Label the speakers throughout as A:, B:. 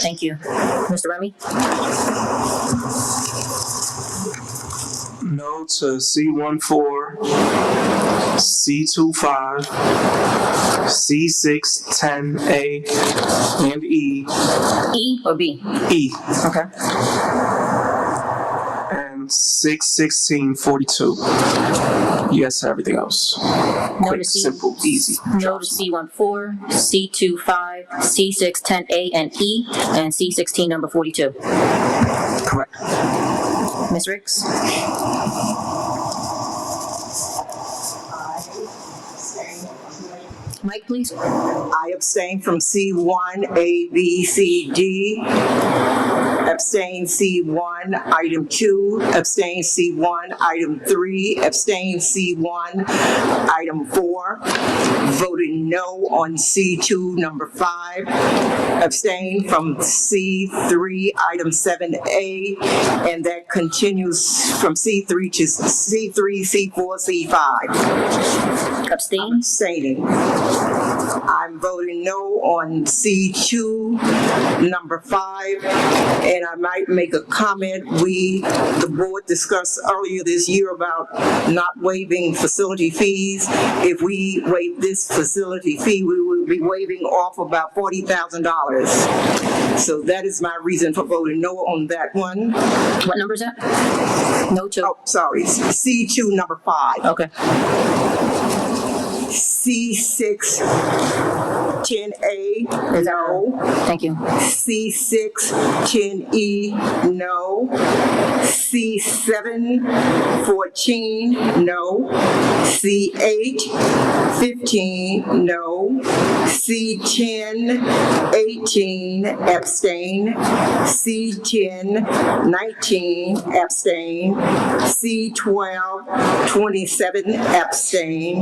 A: Thank you. Mr. Remy?
B: No to C one four, C two five, C six ten A, and E,
A: E or B?
B: E,
A: Okay.
B: and six sixteen forty two. Yes, to everything else.
A: No
B: Quick,
A: to C,
B: simple, easy.
A: no to C one four, C two five, C six ten A and E, and C sixteen number forty-two.
B: Correct.
A: Ms. Ricks? Mike, please.
C: I abstain from C1, A, B, C, D. Abstain C1, item two. Abstain C1, item three. Abstain C1, item four. Voted no on C2, number five. Abstain from C3, item seven A. And that continues from C3 to C3, C4, C5.
A: Abstain?
C: Abstaining. I'm voting no on C2, number five, and I might make a comment. We, the board discussed earlier this year about not waiving facility fees. If we waive this facility fee, we would be waiving off about $40,000. So that is my reason for voting no on that one.
A: What number is that? No to,
C: Oh, sorry, C2, number five.
A: okay.
C: C6, 10A,
A: Is that-
C: no.
A: Thank you.
C: C6, 10E, E, no. C7, 14, no. C8, 15, no. C10, 18, abstain. C10, 19, abstain. C12, 27, abstain.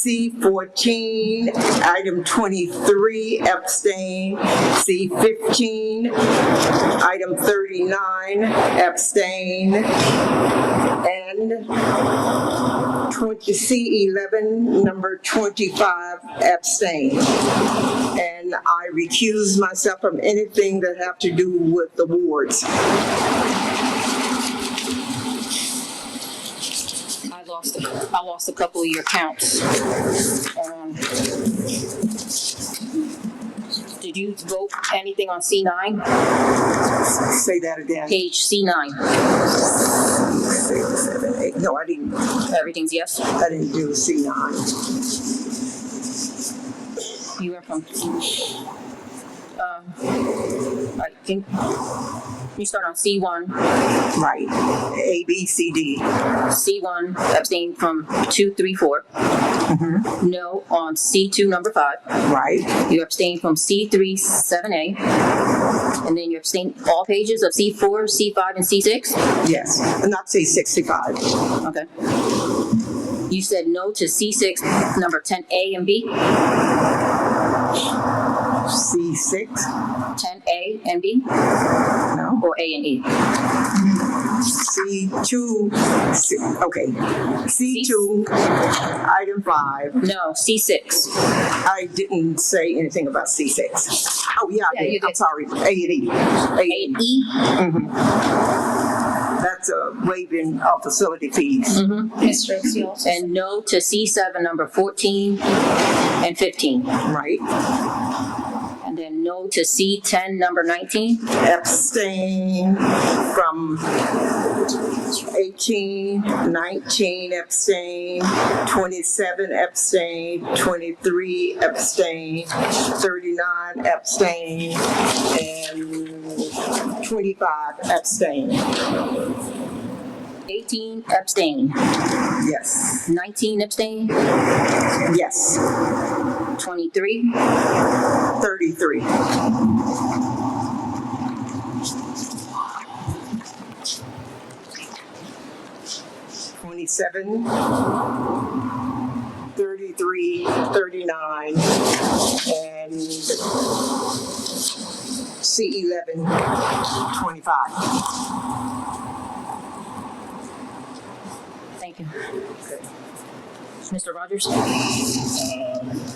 C: C fourteen, item twenty-three, abstain. C fifteen, item thirty-nine, abstain. And twenty, C eleven, number twenty-five, abstain. And I recuse myself from anything that have to do with the wards.
A: I lost, a- I lost a couple of your counts. Um, Did you vote anything on C nine?
C: Say that again.
A: Page C nine.
C: Six, seven, eight. No, I didn't,
A: Everything's yes?
C: I didn't do C nine.
A: You were from. Um, I think you start on C one.
C: Right. A, B, C, D.
A: C1, abstain from two, three, four. No on C2, number five.
C: Right,
A: You abstain from C3, 7A. And then you abstain all pages of C4, C5, and C6?
C: yes. Not say 65.
A: Okay. You said no to C6, number 10A and B?
C: C6?
A: 10A and B,
C: No.
A: or A and E?
C: C2, C- okay. C2, item five.
A: No, C6.
C: I didn't say anything about C6. Oh, yeah,
A: Yeah,
C: I
A: you
C: did. I'm
A: did.
C: sorry. A and E. A
A: A
C: and E.
A: and E?
C: That's a waiving of facility fees.
D: Ms. Ricks, you also
A: And no to C7, number 14 and 15.
C: Right.
A: And then no to C10, number 19?
C: Abstain from 18, 19 abstain, 27 abstain, 23 abstain, 39 abstain, and 25 abstain.
A: 18 abstain,
C: Yes,
A: 19 abstain,
C: yes,
A: 23,
C: 33. Twenty-seven, thirty-three, thirty-nine, and C eleven, twenty-five.
A: thank you. Mr. Rogers?
E: Um,